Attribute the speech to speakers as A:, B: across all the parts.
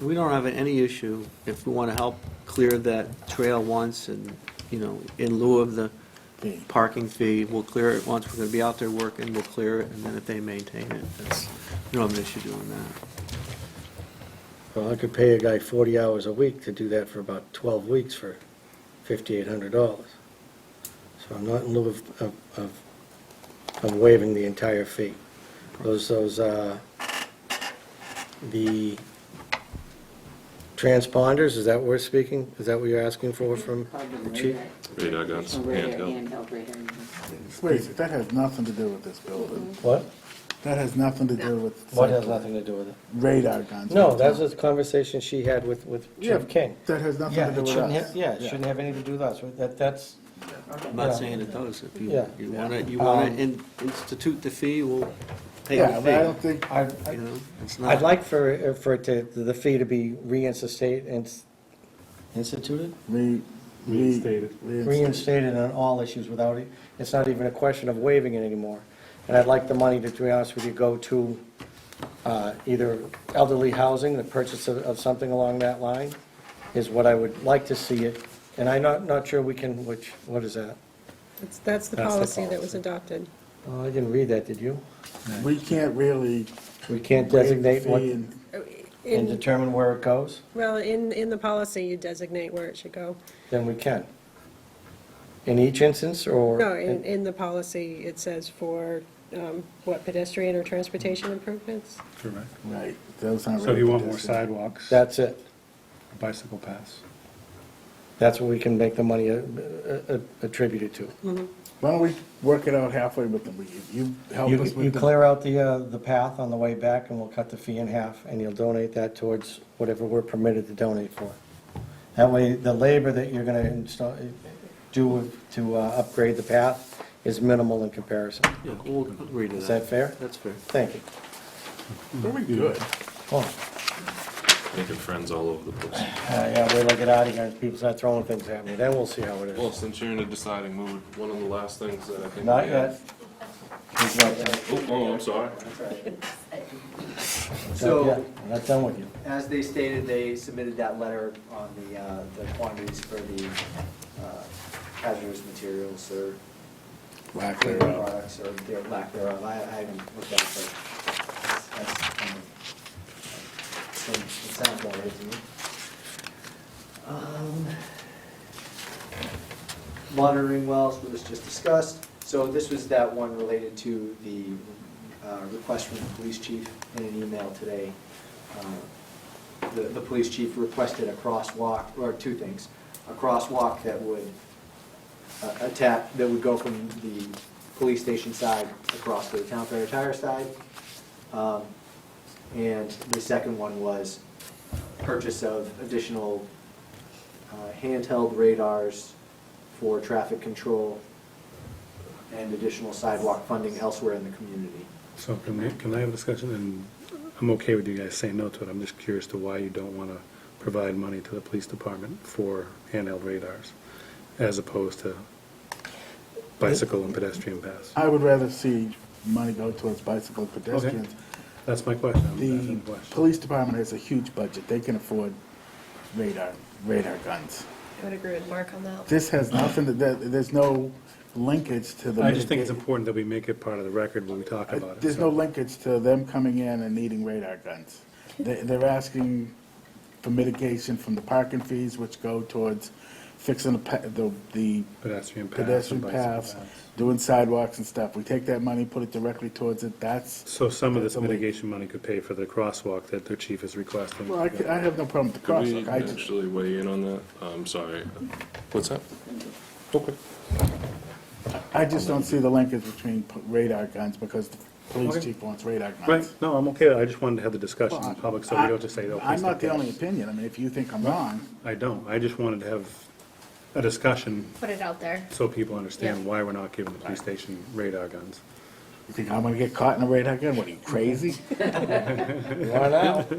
A: We don't have any issue if we want to help clear that trail once and, you know, in lieu of the
B: Fee.
A: parking fee, we'll clear it once, we're going to be out there working, we'll clear it, and then if they maintain it, that's, we don't have an issue doing that.
B: Well, I could pay a guy forty hours a week to do that for about twelve weeks for fifty-eight hundred dollars. So I'm not in lieu of, of, of I'm waiving the entire fee. Those, those, uh, the transponders, is that what we're speaking? Is that what you're asking for from the chief?
C: Radar guns, handheld.
D: Wait, that has nothing to do with this building.
B: What?
D: That has nothing to do with.
B: What has nothing to do with it?
D: Radar guns.
B: No, that was a conversation she had with, with
D: Yeah,
B: Chief King.
D: That has nothing to do
B: it
D: with
B: shouldn't
D: us.
B: have- Yeah, it shouldn't have anything to do with us. That, that's,
A: I'm not
B: Yeah.
A: saying it does, if you,
B: Yeah.
A: you want to, you want
B: Um,
A: to institute the fee, we'll pay
D: Yeah, but I
A: the
D: don't think,
B: I,
A: fee,
B: I-
A: you know? It's not-
B: I'd like for, uh, for it to, the fee to be reinstated, ins- instituted?
D: we.
E: Reinstated.
B: Reinstated on all issues without, it- it's not even a question of waiving it anymore. And I'd like the money to, to be honest with you, go to uh, either elderly housing, the purchase of, of something along that line is what I would like to see it. And I'm not, not sure we can, which, what is that?
F: That's- That's
B: That's the
F: the policy that was
B: policy.
F: adopted.
B: Oh, I didn't read that, did you?
D: We can't really.
B: We can't
D: waive the
B: designate what,
D: fee and-
B: and
F: In,
B: determine where it goes?
F: well, in, in the policy, you designate where it should go.
B: Then we can. In each instance, or?
F: No, in, in the policy, it says for, um, what, pedestrian or transportation improvements?
E: Correct.
D: Right, those aren't.
E: So
D: really
E: you want more
D: pedestrian.
E: sidewalks?
B: That's it.
E: Bicycle paths?
B: That's what we can make the money uh, uh, attributed to.
D: Why don't we work it out halfway with them? Will you- You help
B: You
D: us
B: you
D: with the.
B: clear out the, uh, the path on the way back, and we'll cut the fee in half, and you'll donate that towards whatever we're permitted to donate for. That way, the labor that you're gonna install, do to uh, upgrade the path is minimal in comparison.
A: Yeah, we'll agree to that.
B: Is that fair?
A: That's fair.
B: Thank you.
D: Very good.
B: Oh,
C: Making friends all over the place.
B: uh, yeah, wait till I get out of here, and people start throwing things at me, then we'll see how it
C: Well,
B: is.
C: since you're in a deciding mood, one of the last things that I think.
B: Not
C: we
B: yet.
C: have- Oh, oh, I'm sorry.
B: Not yet.
G: So,
B: I'm not done with you.
G: as they stated, they submitted that letter on the, uh, the quantities for the uh, hazardous materials or
D: Why clear it out?
G: products or their lack thereof. I, I haven't looked at it, but that's, that's, kind of- it sounds about right to me. Um, Monitoring wells was just discussed. So this was that one related to the uh, request from the police chief in an email today. Uh, The, the police chief requested a crosswalk, or two things, a crosswalk that would uh, attack, that would go from the police station side across to the town fair tire side. Um, And the second one was purchase of additional uh, handheld radars for traffic control and additional sidewalk funding elsewhere in the community.
E: So can we, can I have a discussion? And I'm okay with you guys saying no to it. I'm just curious to why you don't want to provide money to the police department for handheld radars as opposed to bicycle and pedestrian paths.
D: I would rather see money go towards bicycle pedestrians
E: That's my question. I'm
D: The
E: asking a question.
D: police department has a huge budget. They can afford radar, radar guns.
H: I would agree with Mark on that.
D: This has nothing to, there- there's no linkage to the.
E: I just think it's
D: mitigate-
E: important that we make it part of the record when we talk about it.
D: There's no
E: So-
D: linkage to them coming in and needing radar guns. They- They're asking for mitigation from the parking fees, which go towards fixing the pa- the, the
E: Pedestrian paths. and
D: pedestrian
E: bicycle
D: paths, doing sidewalks and stuff. We take that money, put it directly towards it. That's,
E: So some of this
D: That's a link.
E: mitigation money could pay for the crosswalk that their chief is requesting.
D: well, I c- I have no problem with the
C: Could we
D: crosswalk. I just,
C: actually weigh in on that? I'm sorry. What's that? Okay.
D: I just don't see the linkage between p- radar guns because the police
E: Okay.
D: chief wants radar guns.
E: Right, no, I'm okay, I just wanted to have the discussion in
D: Well,
E: public, so
D: I-
E: we don't just say, oh, please
D: I'm
E: don't
D: not the
E: do
D: only
E: this.
D: opinion, I mean, if you think I'm wrong,
E: I don't, I just wanted to have a discussion
H: Put it out there.
E: so people understand
H: Yeah.
E: why we're not giving the police station radar guns.
D: you think I'm gonna get caught in a radar gun, what are you, crazy?
B: Run out.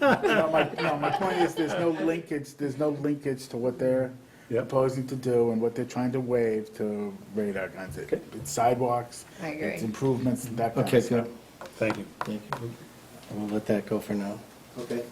D: No, my, no, my point is, there's no linkage, there's no linkage to what they're
E: Yep.
D: proposing to do and what they're trying to waive to radar guns. It- It's sidewalks,
H: I agree.
D: it's improvements, and that kind
B: Okay,
D: of stuff.
B: good.
E: Thank you.
B: Thank you. We'll let that go for now.
G: Okay.